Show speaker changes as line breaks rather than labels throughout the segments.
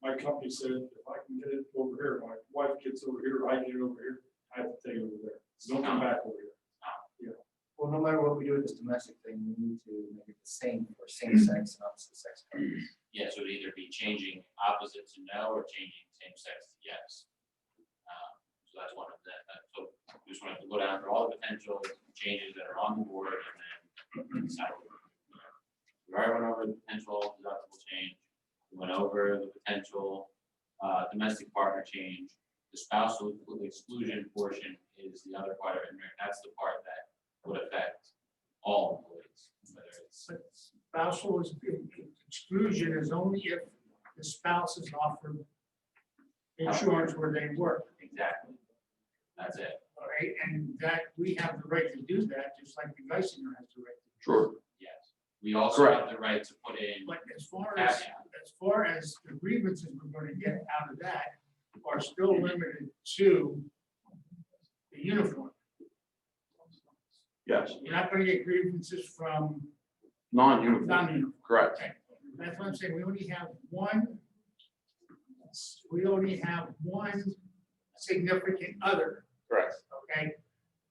my company said, if I can get it over here, my wife gets over here, I get it over here, I have to take it over there. Don't come back over here.
Well, no matter what we do with this domestic thing, we need to make it the same for same sex and opposite sex couples.
Yeah, so it'd either be changing opposite to no or changing same sex to yes. Um, So that's one of the, uh, so we just wanted to go down through all the potential changes that are on the board and then decide. what we're gonna do. We already went over the potential deductible change, we went over the potential uh, domestic partner change. The spousal exclusion portion is the other part, and that's the part that would affect all employees, whether it's.
spousal is, exclusion is only if the spouse is offered insurance where they work,
Exactly. That's it.
all right? And that, we have the right to do that, just like the Geisinger has the right. to do
Sure.
Yes. We also have the right to put in
it. But as far as,
caveat.
as far as the grievances we're gonna get out of that are still limited to the uniform.
Yes,
You're not gonna get grievances from
non-uniform,
non-uniform.
correct.
That's what I'm saying, we only have one, we only have one significant other,
Correct.
okay?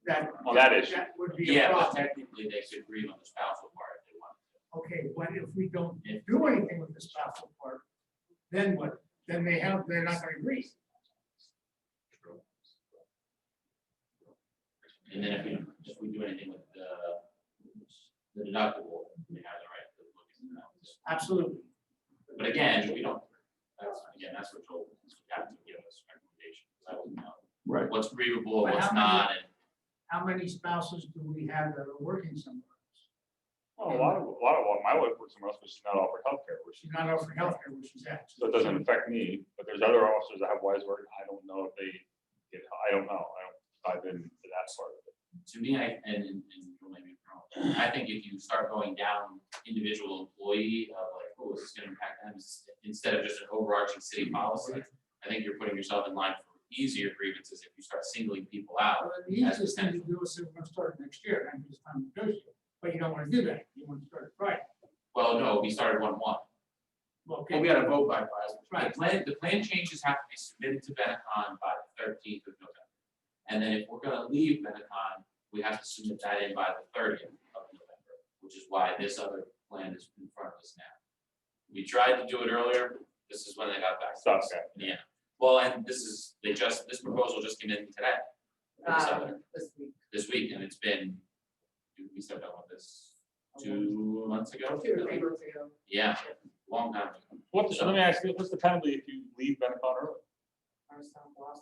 That.
On that issue.
That would be a
Yeah, but
problem.
technically they could agree on the spousal part if they want.
Okay, what if we don't
If-
do anything with the spousal part? Then what? Then they have, they're not gonna agree.
And then if we, if we do anything with the, the deductible, we have the right to look into that.
Absolutely.
But again, we don't, that's, again, that's what Joel, is we have to give us recommendations. I don't know.
Right.
What's agreeable,
But
what's
how many-
not, and
How many spouses do we have that are working somewhere? else?
A lot of, a lot of, my wife works somewhere else, but she's not offered healthcare, which,
She's not offering healthcare, which is that.
so it doesn't affect me, but there's other officers that have wise work, I don't know if they, get- I don't know, I don't dive into that part of it.
to me, I, and, and and Joel may be wrong, I think if you start going down individual employee, of like, oh, is this gonna impact them, s- instead of just an overarching city policy, I think you're putting yourself in line for easier grievances if you start singling people out.
Well, The easiest thing to do is say, we're gonna start next year, and it's time to negotiate, but you don't wanna do that, you wanna start right.
Well, no, we started one one. Well, we
Okay,
had a vote by Friday.
Right.
The plan, the plan changes have to be submitted to Benetton by the thirteenth of November. And then if we're gonna leave Benetton, we have to submit that in by the thirtieth of November, which is why this other plan is in front of us now. We tried to do it earlier, this is when they got back. to
Stop
us.
that.
Yeah, well, and this is, they just, this proposal just came in today. This
Uh,
other-
this week.
This week, and it's been, we started on this two months ago.
Two or three months ago.
Yeah, long time ago.
What's, let me ask you, what's the penalty if you leave Benetton early?
our sound loss.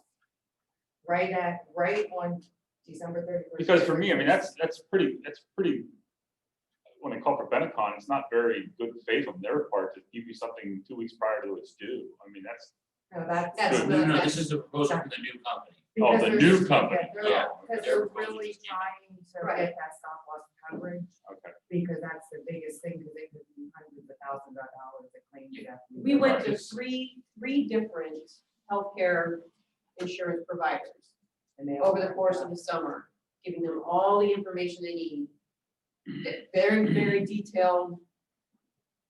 Right at, right on December thirty first.
Because for me, I mean, that's, that's pretty, that's pretty, when I call for Benetcon, it's not very good faith on their part to give you something two weeks prior to it's due. I mean, that's,
No, that, that's.
That's
No,
the-
no, no, this is the proposal for the new company.
Oh,
because
the
they're
new
just-
company.
yeah, they're-
Yeah.
Because they're really trying to
Right.
get that stop loss coverage,
okay.
because that's the biggest thing, because it could be hundreds of thousands of dollars of claims. you have to-
We went to
Right.
three, three different healthcare insurance providers
and they all
over the
have
course
that.
of the summer, giving them all the information they need. Very, very detailed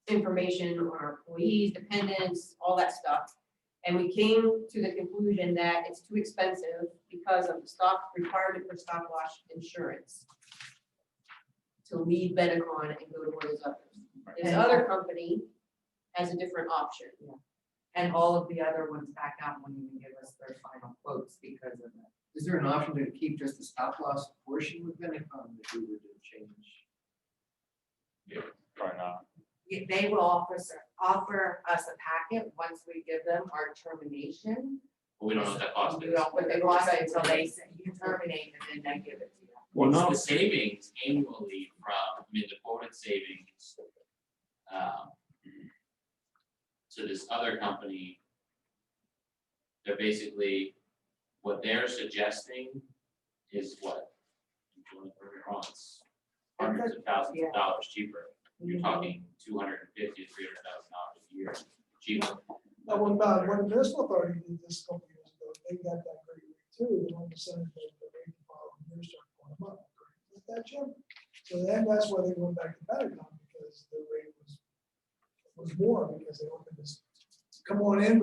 information on our employees, dependents, all that stuff. And we came to the conclusion that it's too expensive because of the stock requirement for stop loss insurance to leave Benetcon and go to one of those others. This other company has a different option.
And all of the other ones back out won't even give us their final quotes because of that.
Is there an option to keep just the stop loss portion with Benetcon if we were to change?
Try not.
Yeah, They will offer, us- offer us a packet once we give them our termination.
But we don't know what that cost
You
is.
don't, but they lost it until they say, you terminate and then they give it to you.
Well,
What's
no,
the savings annually from, I mean, the quoted savings? um, To this other company. They're basically, what they're suggesting is what? Don't get me wrong, it's Hundreds of thousands
Yeah.
of dollars cheaper. You're talking two hundred and fifty, three hundred thousand dollars a year cheaper.
Now, when, uh, when municipal authority did this a couple years ago, they got that great rate too, the one percent of the rate file, years started going up. Is that Jim? So then that's why they went back to Pentagon, because the rate was, was more, because they opened this, come on in,